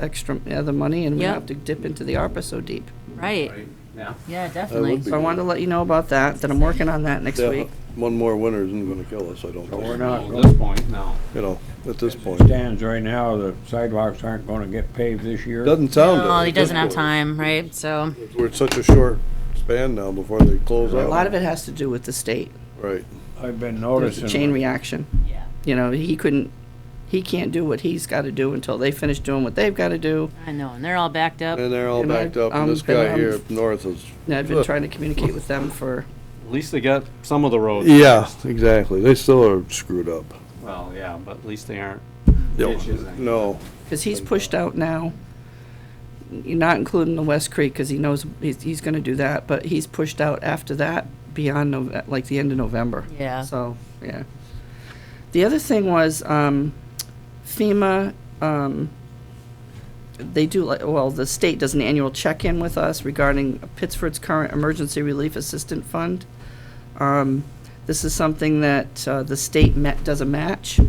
extra, other money, and we Yeah. don't have to dip into the ARPA so deep. Right, Yeah. yeah, definitely. be- So I wanted to let you know about that, that I'm working on that next Yeah, week. One more winter isn't gonna kill us, I don't But we're think, not, at this point, no. you know, at this point. Stands right now, the sidewalks aren't gonna get paved this year. Doesn't sound. it Oh, at he this doesn't have point. time, right, so, We're at such a short span now before they close A out. lot of it has to do with the state. Right. I've been There's a noticing. chain reaction. Yeah. You know, he couldn't, he can't do what he's got to do until they finish doing what they've got to do. I know, and they're all backed up. And they're all And I- backed up, um, and this and, guy um, here up north is. And I've been trying to communicate with them for, At least they got some of the roads. Yeah, exactly. They still are screwed up. Well, yeah, but at least they aren't No. ditches. and- No, because he's pushed out now, not including the West Creek, because he knows he's, he's going to do that, but he's pushed out after that beyond, Nov- like, the end of November. Yeah. So, yeah. The other thing was um, FEMA, um, they do, like well, the state does an annual check-in with us regarding Pittsford's current Emergency Relief Assistance Fund. Um, This is something that uh, the state ma- does a match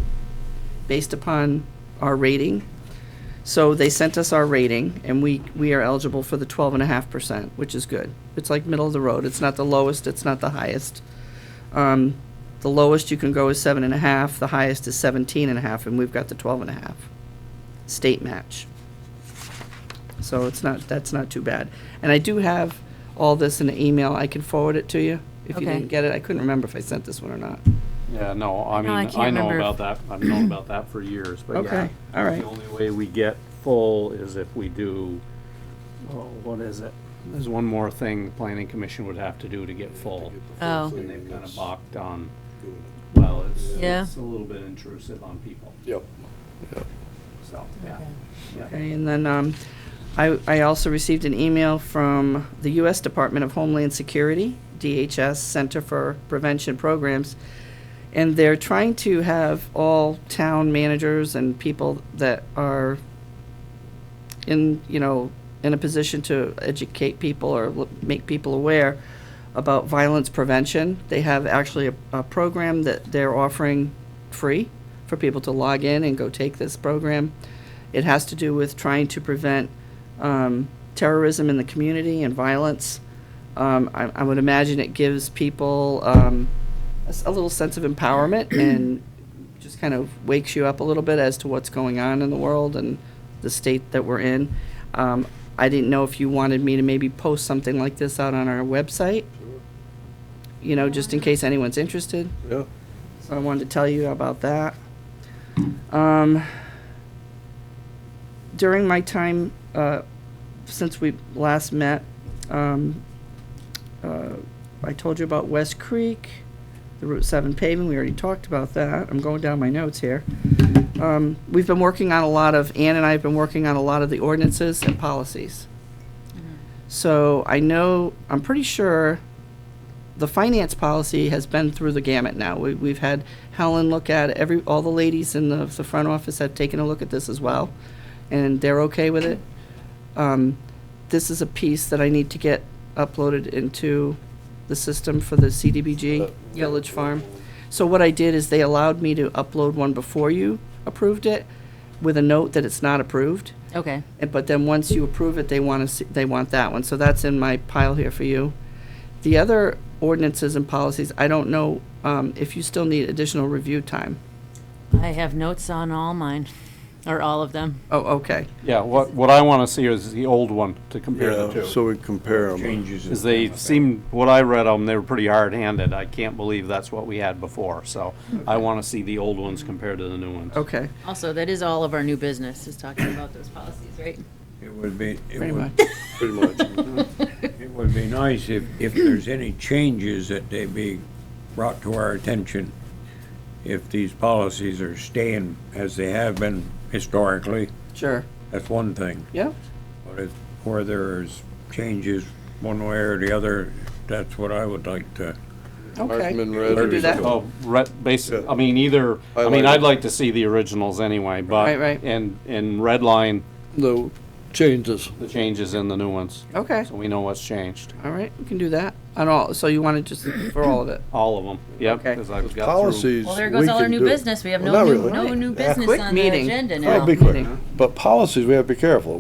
based upon our rating. So they sent us our rating, and we, we are eligible for the twelve and a half percent, which is good. It's like middle of the road. It's not the lowest, it's not the highest. Um, the lowest you can go is seven and a half, the highest is seventeen and a half, and we've got the twelve and a half. State match. So it's not, that's not too bad. And I do have all this in an email. I can forward it to you if you Okay. didn't get it. I couldn't remember if I sent this one or not. Yeah, no, I No, I mean, can't I know remember if- about that, I've known about that for years, but yeah. Okay, all right. The only way we get full is if we do, oh, what is it? There's one more thing the planning commission would have to do to get full. Oh. And they've kind of balked on, well, it's, Yeah. it's a little bit intrusive on people, Yep. so, yeah. yeah. Okay, and then um, I I also received an email from the U.S. Department of Homeland Security, DHS, Center for Prevention Programs, and they're trying to have all town managers and people that are in, you know, in a position to educate people or l- make people aware about violence prevention. They have actually a, a program that they're offering free for people to log in and go take this program. It has to do with trying to prevent um, terrorism in the community and violence. Um, I, I would imagine it gives people um, a, s- a little sense of empowerment and just kind of wakes you up a little bit as to what's going on in the world and the state that we're in. Um, I didn't know if you wanted me to maybe post something like this out on our website, you know, just in case anyone's interested. Yeah. So I wanted to tell you about that. Um, during my time, uh, since we last met, um, uh, I told you about West Creek, the Route 7 paving, we already talked about that. I'm going down my notes here. Um, we've been working on a lot of, Ann and I have been working on a lot of the ordinances and policies. Mm-hmm. So I know, I'm pretty sure the finance policy has been through the gamut now. We, we've had Helen look at it. every, all the ladies in the, the front office have taken a look at this as well, and they're okay with it. Um, this is a piece that I need to get uploaded into the system for the CDBG Village Farm. So what I did is they allowed me to upload one before you approved it with a note that it's not approved. Okay, And- But then once you approve it, they want to, see they want that one. So that's in my pile here for you. The other ordinances and policies, I don't know um, if you still need additional review time. I have notes on all mine, or all of them. Oh, okay. Yeah, what, what I wanna see is the old one to compare the Yeah, two. so we compare them. Changes. in- Because they seemed, what I read on them, they were pretty hard-handed. I can't believe that's what we had before, so I want to see the old ones compared to the new ones. Okay. Also, that is all of our new business, is talking about those policies, right? It would be, Pretty it much. would, Pretty much. it would be nice if, if there's any changes that they be brought to our attention. If these policies are staying as they have been historically, Sure. that's one thing. Yeah. But if, where there's changes one way or the other, that's what I would like to. Okay. Markman We red can or do that. something. Oh, red, basic, Yeah. I mean, either, I mean, Highlighted. I'd like to see the originals anyway, but. Right, right. And, and red line, The changes. the changes in the new ones, Okay, so we know what's changed. all right, we can do that. And all, so you want to just for all of it? All of them, yep, Okay. because I've got through. Policies. Well, there goes we all our can new do it. business. We have Well, no not new, really. no new Yeah. business Quick on meeting. the agenda now. That'd be quick. But policies, we have to be careful.